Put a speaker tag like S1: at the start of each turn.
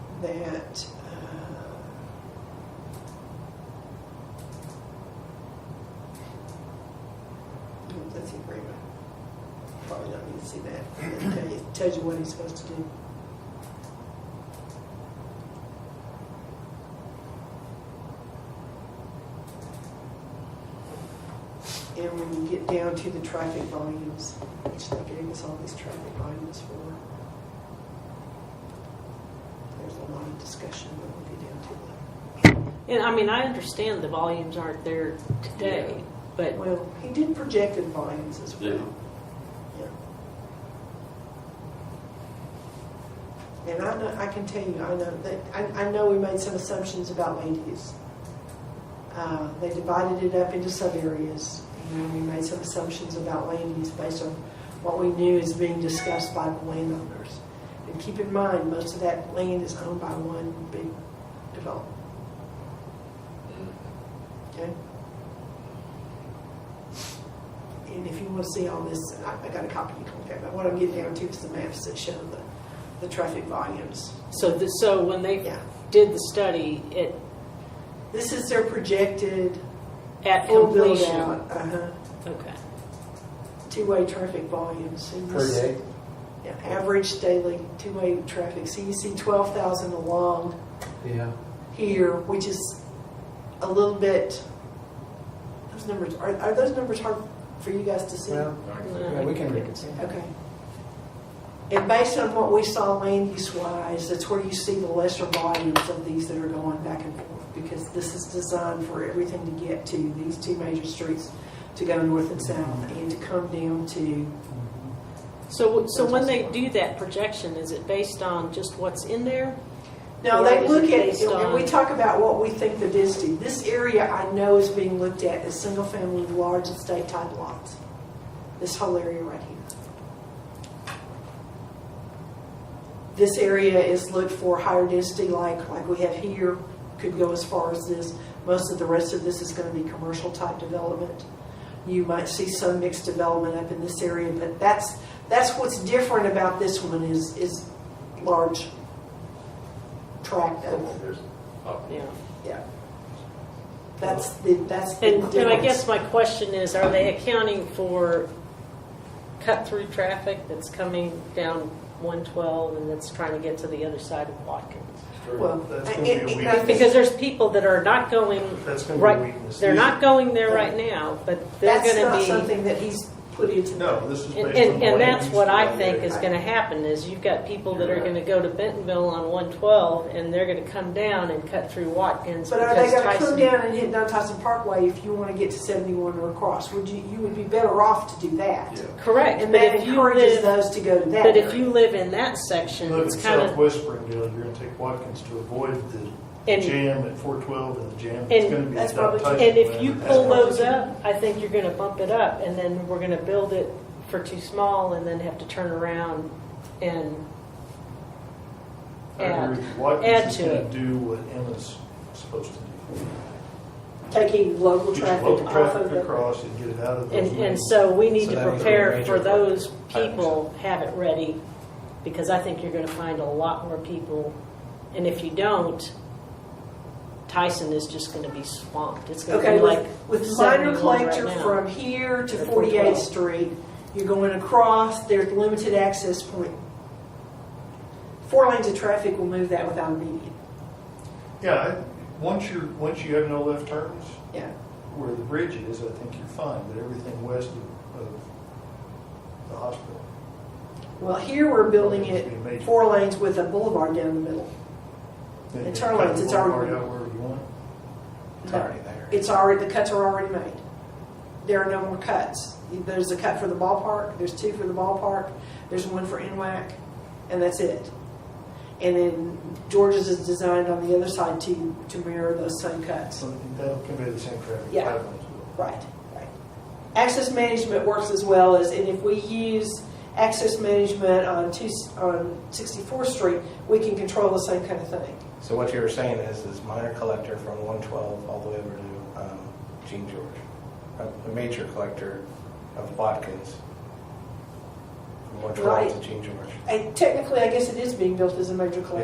S1: that. uh, oh, That's the agreement. Probably don't need to see that. It tell you- Tells you what he's supposed to do. And when you get down to the traffic volumes, which they gave us all these traffic volumes for, there's a lot of discussion when we get down to that.
S2: And I mean, I understand the volumes aren't there today, but
S1: Well, he did projected volumes as
S3: Yeah.
S1: well. Yeah. And I know, I can tell you, I know that, I, I know we made some assumptions about land use. Uh, they divided it up into sub areas, and we made some assumptions about land use based on what we knew is being discussed by the landowners. And keep in mind, most of that land is owned by one big developer, okay? And if you want to see all this, I, I got a copy you can get, but what I'm getting down to is the maps that show the, the traffic volumes.
S2: so the, so when they
S1: Yeah,
S2: did the study, it
S1: this is their projected
S2: at
S1: full build
S2: completion.
S1: out, uh-huh,
S2: Okay.
S1: two-way traffic volumes. And
S4: per
S1: this-
S4: day.
S1: Yeah, average daily two-way traffic, so you see twelve thousand along
S4: Yeah.
S1: here, which is a little bit, those numbers, are, are those numbers hard for you guys to see?
S4: Well, yeah, we can reconsider.
S1: Okay. And based on what we saw land use wise, that's where you see the lesser volumes of these that are going back and forth. Because this is designed for everything to get to these two major streets, to go north and south and to come down to,
S2: So so when they do that projection, is it based on just what's in there?
S1: no,
S2: Or
S1: they
S2: is
S1: look
S2: it
S1: at,
S2: based
S1: and we
S2: on-
S1: talk about what we think the density. This area I know is being looked at as single family, large estate type lots. This whole area right here. this area is looked for higher density, like, like we have here, could go as far as this. Most of the rest of this is gonna be commercial type development. You might see some mixed development up in this area, but that's, that's what's different about this one is, is large tract of,
S2: Yeah.
S1: yeah. That's the, that's the
S2: And,
S1: difference.
S2: and I guess my question is, are they accounting for cut-through traffic that's coming down 112 and that's trying to get to the other side of Watkins?
S1: Well,
S5: That's
S1: I-
S5: gonna be a
S1: I- I
S5: weakness.
S1: think-
S2: Because there's people that are not going,
S5: That's gonna be a
S2: right,
S5: weakness.
S2: they're not going there right now, but they're
S1: That's
S2: gonna
S1: not
S2: be.
S1: something that he's put into.
S5: No, this
S2: And,
S5: is based on.
S2: and, and
S5: land
S2: that's
S5: use
S2: what I
S5: evaluation.
S2: think is gonna happen, is you've got people that are gonna go to Bentonville on one twelve, and they're gonna come down and cut through Watkins
S1: But are they
S2: because
S1: gonna come
S2: Tyson.
S1: down and hit down Tyson Parkway if you wanna get to seventy-one or across? Would you, you would be better off to do that.
S5: Yeah.
S2: Correct,
S1: And
S2: but
S1: that
S2: if you
S1: encourages
S2: live,
S1: those to go to that.
S2: but if
S1: area.
S2: you live in that section,
S5: Look
S2: it's
S5: at
S2: kinda,
S5: Southwest Springdale, you're gonna take Watkins to avoid the
S2: And-
S5: jam at four twelve and the jam
S2: And-
S5: that's gonna be.
S1: That's
S5: at Doug
S1: probably true.
S5: Tyson
S2: and if
S5: Land.
S2: you
S5: That's
S2: pull
S5: probably-
S2: those up, I think you're gonna bump it up, and then we're gonna build it for too small, and then have to turn around and
S5: I agree
S2: add.
S5: with you. Watkins is
S2: add to
S5: gonna
S2: it.
S5: do what Emma's supposed to do.
S1: Taking local
S5: Get your
S1: traffic
S5: local
S1: off of
S5: traffic
S1: the.
S5: across and get it out of those.
S2: And, and
S5: lanes.
S2: so we need
S4: So
S2: to
S4: that was a
S2: prepare
S4: major
S2: for those
S4: focus.
S2: people, have it ready, because I think you're gonna find a lot more people. And if you don't, Tyson is just gonna be swamped. It's gonna
S1: Okay,
S2: be like
S1: with, with minor
S2: 71 right
S1: collector
S2: now.
S1: from here to
S2: Or
S1: 48th
S2: 412.
S1: Street, you're going across, there's limited access point. Four lanes of traffic will move that without a median,
S5: Yeah, I, once you're, once you have no left turns
S1: yeah.
S5: where the bridge is, I think you're fine, but everything west of, of the hospital.
S1: Well, here we're building it four lanes with a boulevard down the middle.
S5: then
S1: It's
S5: you
S1: our
S5: cut
S1: lanes,
S5: the
S1: it's our-
S5: boulevard out wherever you want.
S4: It's already there.
S1: It's already, the cuts are already made. There are no more cuts. There's a cut for the ballpark, there's two for the ballpark, there's one for NWAC, and that's it. And then George's is designed on the other side to, to mirror those same cuts.
S5: So that'll convey the same traffic
S1: Yeah.
S5: pattern as well.
S1: Right, right. Access management works as well as, and if we use access management on two, on 64th Street, we can control the same kind of thing.
S4: So what you were saying is, is minor collector from 112 all the way over to um, Gene George, a a major collector of Watkins from 112
S1: Right.
S4: to Gene George.
S1: And technically, I guess it is being built as a major collector.